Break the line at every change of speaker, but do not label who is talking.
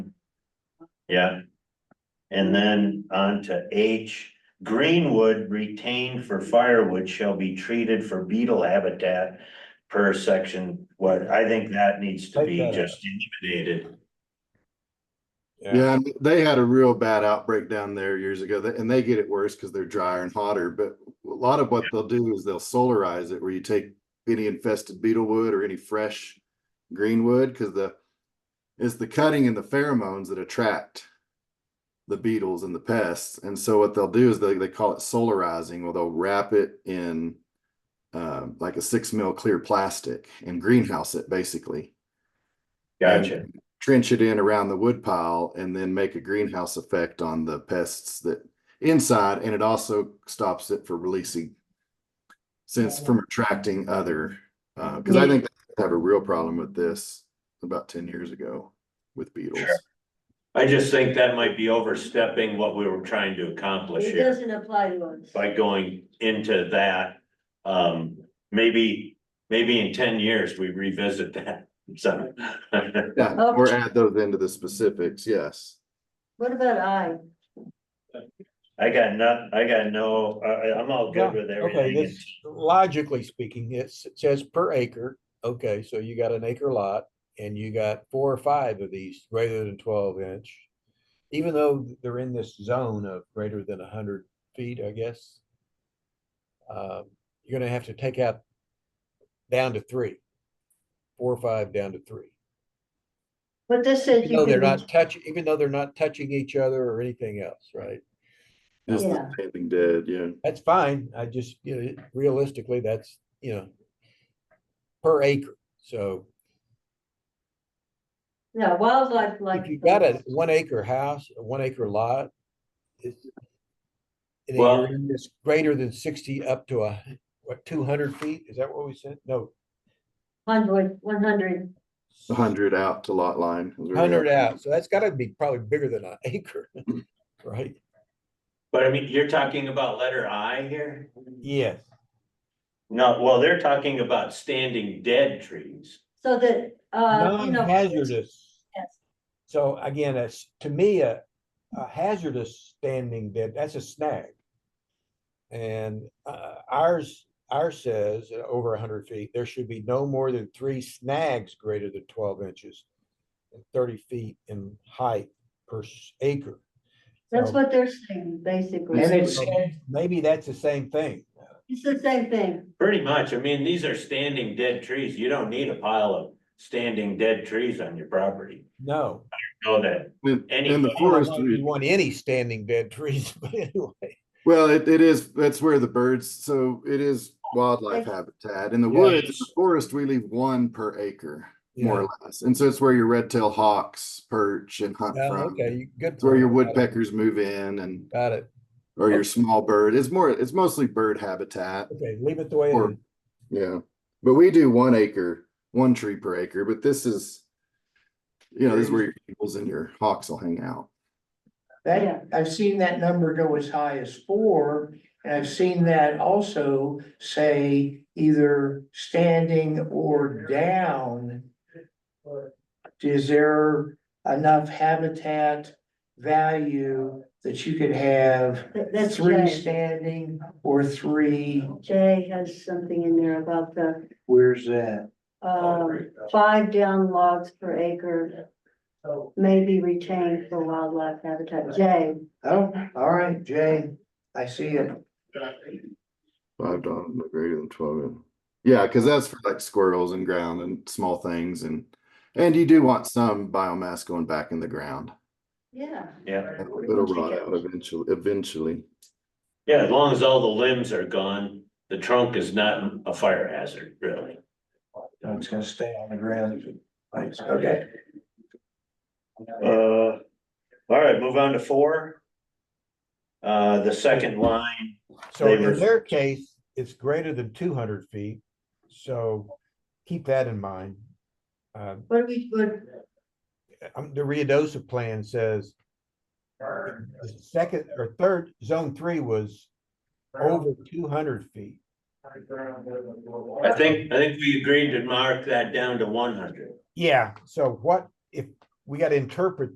Yeah. And then on to H, greenwood retained for firewood shall be treated for beetle habitat. Per section, what, I think that needs to be
Take that out.
just eliminated.
Yeah, and they had a real bad outbreak down there years ago, th- and they get it worse because they're drier and hotter. But a lot of what they'll do is they'll solarize it, where you take any infested beetle wood or any fresh green wood, because the it's the cutting and the pheromones that attract the beetles and the pests. And so what they'll do is they they call it solarizing, where they'll wrap it in uh, like a six mil clear plastic and greenhouse it basically
Gotcha.
trench it in around the wood pile and then make a greenhouse effect on the pests that inside and it also stops it for releasing since from attracting other uh because i
Yeah.
think they have a real problem with this about 10 years ago with beetles
I just think that might be overstepping what we were trying to accomplish
It
here
doesn't apply to us.
by going into that. Um, maybe, maybe in ten years, we revisit that. So.
yeah
Oh.
or add those into the specifics yes
What about I?
I got not, I got no, I, I- I'm all good with
Okay,
everything.
this logically speaking, it's- it says per acre. Okay, so you got an acre lot and you got four or five of these greater than twelve inch. Even though they're in this zone of greater than hundred feet, I guess. um, You're gonna have to take out down to three, four or five down to three.
But this says
Even
you
though they're
can,
not touching, even though they're not touching each other or anything else, right?
just
Yeah.
the standing dead yeah
That's fine. I just, you know, realistically, that's, you know, per acre. So
yeah, wildlife like.
if you got a one acre house, a one acre lot, it's and then
Well-
you're in this greater than sixty up to a, what, two hundred feet? Is that what we said? No,
Hundred, one hundred,
100 out to lot line is where we
hundred
are.
out. So that's gotta be probably bigger than an acre, right?
But I mean, you're talking about letter I here?
Yes.
No, well, they're talking about standing dead trees.
so that, uh, you know.
Non-hazardous.
Yes.
So again, that's, to me, a, a hazardous standing dead, that's a snag. And, uh, ours, ours says uh, over hundred feet, there should be no more than three snags greater than twelve inches. and Thirty feet in height per s- acre.
That's
So
what they're saying, basically.
And
It's
it's-
Maybe that's the same thing.
the same thing.
Pretty much, I mean, these are standing dead trees. You don't need a pile of standing dead trees on your property.
No.
Know that.
in,
Any-
in the
I don't know
forest
if
we-
You want any standing dead trees, but anyway.
Well, it, it is, that's where the birds, so it is wildlife
Okay.
habitat. In the
Yeah.
woods, in the forest, we leave one per acre, more
Yeah.
or less. And so it's where your red-tailed hawks perch and hunt
Yeah,
from.
Okay, you- good.
It's where your
point. Got it,
woodpeckers move in and,
Got it.
or your small bird. It's more, it's mostly bird habitat.
Okay, leave it the way it
Or-
is.
Yeah, but we do one acre, one tree per acre, but this is, you know, this is where your eagles and your hawks will hang out.
Yeah.
That, I've seen that number go as high as four, and I've seen that also say either standing or down. Is there enough habitat value that you could have
That- That's
three
Jay.
standing or three,
Jay has something in there about the,
where's that?
um, five down logs per acre
Oh,
may be retained for wildlife habitat. Jay,
Oh, all right, Jay, I see it.
Five dollars, no greater than twelve. in- Yeah, because that's for like squirrels and ground and small things and, and you do want some biomass going back in the ground.
yeah.
Yeah,
It'll rot out eventually, eventually.
yeah, as long as all the limbs are gone, the trunk is not a fire hazard, really.
No, It's gonna stay on the ground. Thanks, okay.
Uh, all right, move on to four. Uh, the second line,
So
They
in
were-
their case, it's greater than two hundred feet, so keep that in mind. Uh,
What do we, what,
um, the Rio Dosa plan says the second or third, zone three was over two hundred feet.
I think, I think we agreed to mark that down to one hundred.
Yeah. So what, if, we gotta interpret